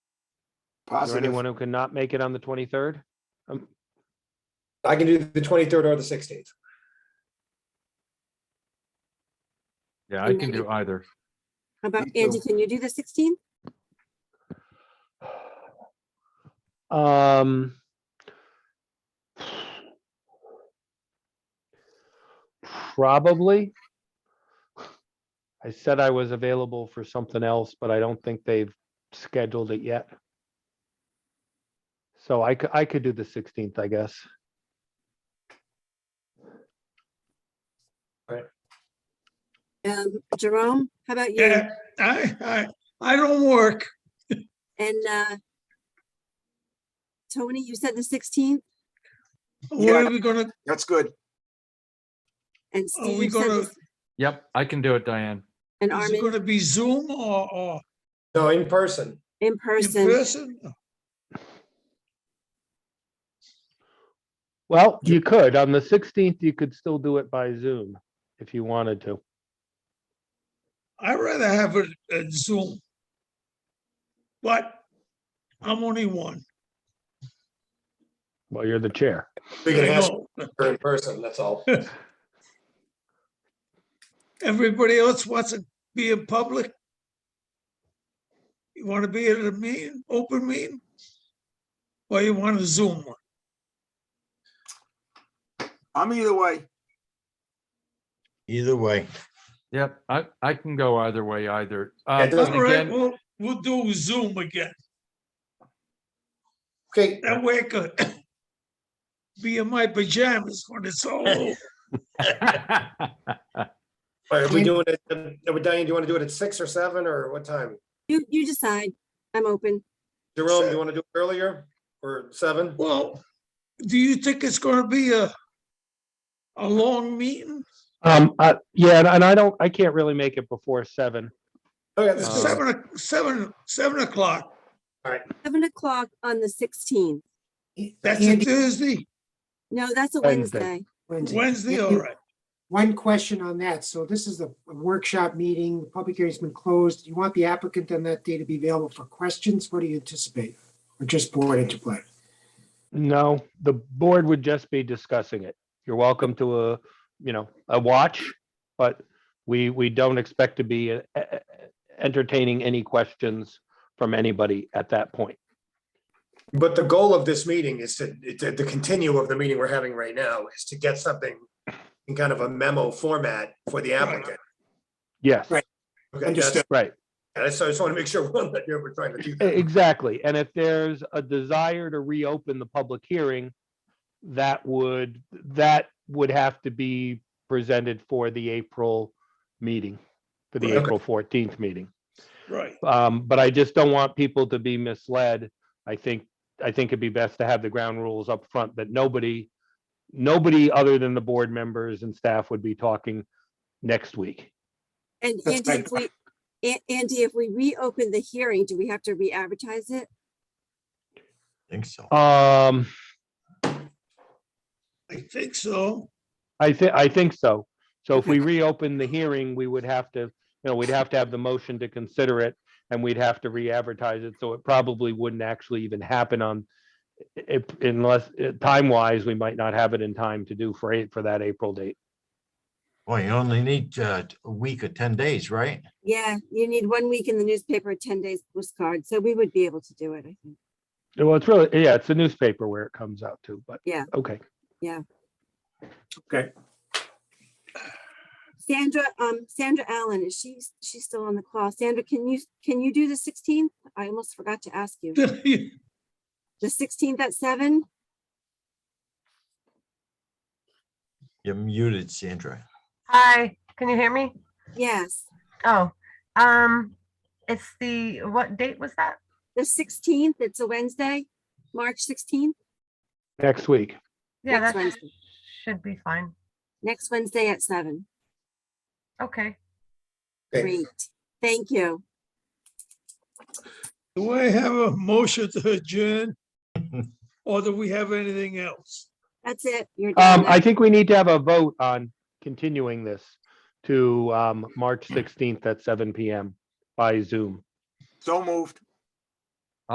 Is there Positive. anyone who cannot make it on the twenty-third? I can do the twenty-third or the sixteenth. Yeah, I can do either. How about, Me too. Andy, can you do the 16th? Um. Probably. I said I was available for something else, but I don't think they've scheduled it yet. So I could, I could do the sixteenth, I guess. Um, Jerome, how about you? Yeah, I, I, I don't work. And, uh, Tony, you said the 16th What Yeah. are we gonna, That's good. and are Steve Oh, we you said, gonna, the- Yep, I can do it, Diane. and is it Armin gonna be Zoom or, or No, in person. in in person. person? Well, you could, on the sixteenth, you could still do it by Zoom if you wanted to. I'd rather have it at Zoom. But I'm only one. Well, you're the chair. We can I ask know. her in person, that's all. Everybody else wants to be in public? You wanna be at a meeting, open meeting? Or you want a Zoom one? I'm either way. Either way, Yep, I, I can go either way, either. it Uh, then doesn't- All right, again, we'll, we'll do Zoom again. Okay, That way I could be in my pajamas when it's all over. are we doing it, uh, Diane, do you want to do it at six or seven or what time? You, you decide. I'm open. Jerome, do you want to do it earlier or seven? Well, do you think it's gonna be a a long meeting? Um, uh, yeah, and- and I don't, I can't really make it before seven. Okay, Oh, Uh, let's do it. Seven, o- seven, seven o'clock. Seven o'clock on the 16th. That's a Thursday, No, that's a Wednesday. Wednesday. Wednesday, all Andy, right. One question on that. So this is the workshop meeting, the public hearing's been closed. You want the applicant on that day to be available for questions? What do you anticipate? Or just board interplay? No, the board would just be discussing it. You're welcome to a, you know, a watch, but we, we don't expect to be uh, e- e- entertaining any questions from anybody at that point. But the goal of this meeting is to, to, the continue of the meeting we're having right now is to get something in kind of a memo format for the applicant. Yes, Right. Okay, Understood. that's- right, I just, I just want to make sure one, that you're trying to do E- that. exactly. And if there's a desire to reopen the public hearing, that would, that would have to be presented for the April meeting, for the Right. Okay. April 14th meeting. Right. Um, but I just don't want people to be misled. I think, I think it'd be best to have the ground rules up front that nobody, nobody other than the board members and staff would be talking next week. And That's Andy, if we, right. A- Andy, if we reopen the hearing, do we have to re-advertise it? I think so. Um, I think so. I thi- I think so. So if we reopen the hearing, we would have to, you know, we'd have to have the motion to consider it and we'd have to re-advertise it. So it probably wouldn't actually even happen on it unless, time wise, we might not have it in time to do for eight, for that April date. Boy, you only need uh, a week or 10 days, right? Yeah, you need one week in the newspaper, ten days postcard. So we would be able to do it, I think. Yeah, Well, it's really, yeah, it's a newspaper where it comes out to, but. Yeah. Okay. Sandra, um, Sandra Allen, is she, she's still on the call. Sandra, can you, can you do the 16th? I almost forgot to ask you. The 16th at seven? You're muted, Sandra. Hi, can you hear me? Yes, Oh, um, it's the, what date was that? the 16th, it's a Wednesday, March 16th, Next week. Yeah, Next that Wednesday. should be fine. next Wednesday at seven. Okay. Okay. Great. Thank you. Do I have a motion to adjourn? Or do we have anything else? That's it. You're done. Um, I think we need to have a vote on continuing this to, um, March sixteenth at seven PM by Zoom. So moved.